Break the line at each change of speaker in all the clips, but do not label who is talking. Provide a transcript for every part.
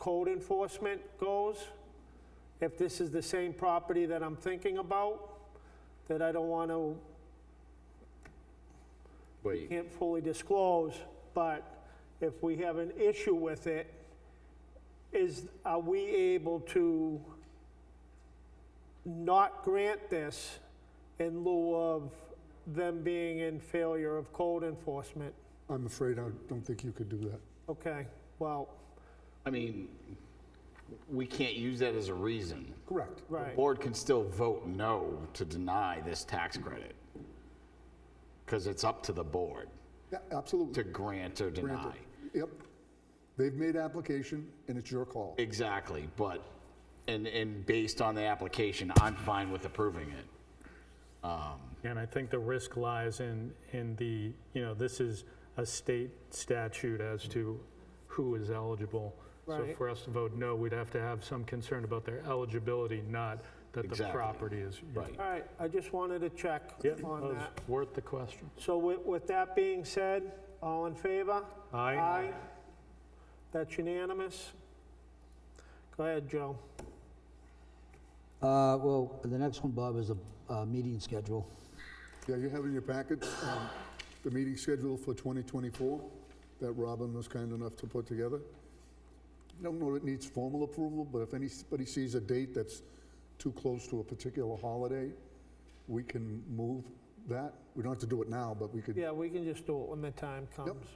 code enforcement goes, if this is the same property that I'm thinking about, that I don't want to,
Wait,
can't fully disclose, but if we have an issue with it, is, are we able to not grant this in lieu of them being in failure of code enforcement?
I'm afraid I don't think you could do that.
Okay, well,
I mean, we can't use that as a reason.
Correct.
right.
Board can still vote no to deny this tax credit. Because it's up to the board
Yeah, absolutely.
to grant or deny.
Yep. They've made application and it's your call.
Exactly, but, and, and based on the application, I'm fine with approving it.
And I think the risk lies in, in the, you know, this is a state statute as to who is eligible. So
Right.
for us to vote no, we'd have to have some concern about their eligibility, not that the
Exactly.
property is.
Right.
All right, I just wanted to check
Yeah, that
on
was
that.
worth the question.
So with, with that being said, all in favor?
Aye.
Aye. That's unanimous. Go ahead, Joe.
Uh, Well, the next one, Bob, is a uh, meeting schedule.
Yeah, you have in your packets, um, the meeting schedule for 2024 that Robin was kind enough to put together. Don't know that it needs formal approval, but if anybody sees a date that's too close to a particular holiday, we can move that. We don't have to do it now, but we could.
Yeah, we can just do it when the time comes.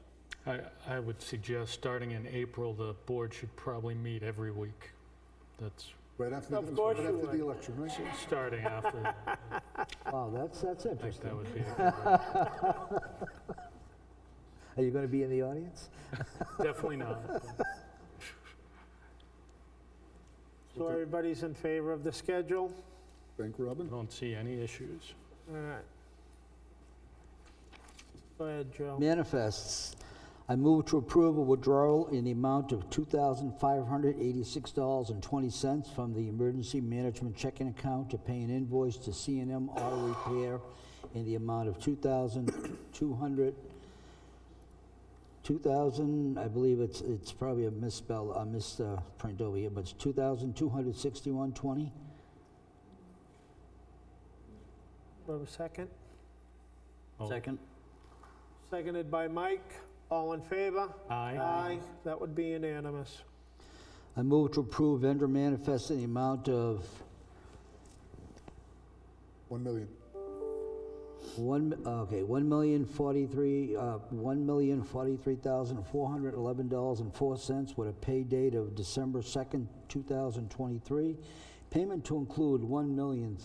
I, I would suggest, starting in April, the board should probably meet every week. That's
Right after,
Of
the-
course
right
you
after
would.
the election, right?
starting after, I
Wow, that's, that's
think
interesting.
that would be a good one.
Are you going to be in the audience?
Definitely not.
So everybody's in favor of the schedule?
Thank
I
Robin.
don't see any issues.
All right. Go ahead, Joe.
Manifests. I move to approve a withdrawal in the amount of $2,586.20 from the emergency management checking account to pay an invoice to c and M Auto Repair in the amount of 2200 2,000, I believe it's, it's probably a misspell, a misprint over here, but it's 2,261.20.
Do I have a second?
Oh.
Second.
Seconded by Mike. All in favor?
Aye.
Aye. That would be unanimous.
I move to approve vendor manifest in the amount of
1 million.
one, mi- okay, one million forty-three, uh, one million forty-three thousand four hundred eleven dollars and four cents with a pay date of December second, two thousand twenty-three. Payment to include one million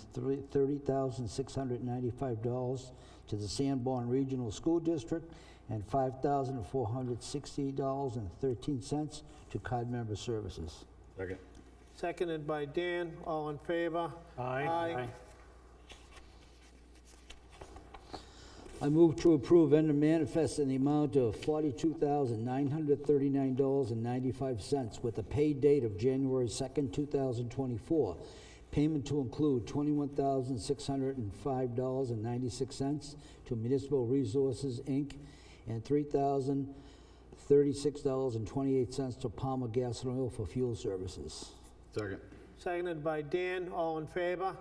thirty thousand six hundred ninety-five dollars to the Sanborn Regional School District and five thousand four hundred sixty dollars and thirteen cents to card member services.
Second.
Seconded by Dan. All in favor? Aye.
I move to approve vendor manifest in the amount of $42,939.95 with a pay date of January 2nd, 2024. Payment to include $21,605.96 to Municipal Resources, Inc., and $3,036.28 to Palmer Gas and Oil for fuel services.
Second.
Seconded by Dan. All in favor?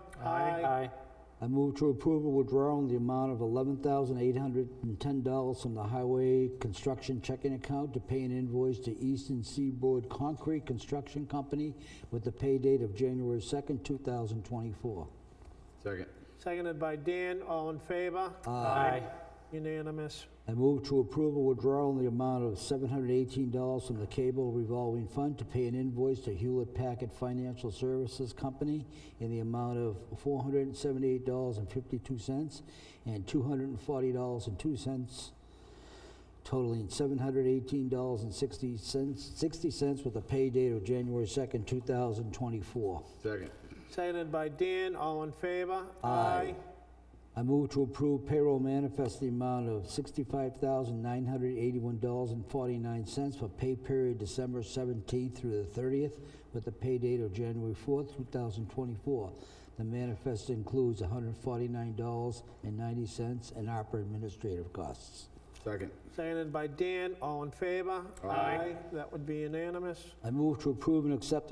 I move to approve a withdrawal in the amount of $11,810 from the Highway Construction Checking Account to pay an invoice to Eastern Seaboard Concrete Construction Company with the pay date of January 2nd, 2024.
Second.
Seconded by Dan, all in favor?
Aye.
Unanimous.
I move to approve a withdrawal in the amount of $718 from the Cable Revolving Fund to pay an invoice to Hewlett Packard Financial Services Company in the amount of $478.52 and $240.02 totaling $718.60 60 cents with a pay date of January 2nd, 2024.
Second.
Seconded by Dan, all in favor?
Aye. I move to approve payroll manifest in the amount of $65,981.49 for pay period December 17th through the 30th with the pay date of January 4th, 2024. The manifest includes $149.90 in ARPA administrative costs.
Second.
Seconded by Dan, all in favor?
Aye.
That would be unanimous.
I move to approve and accept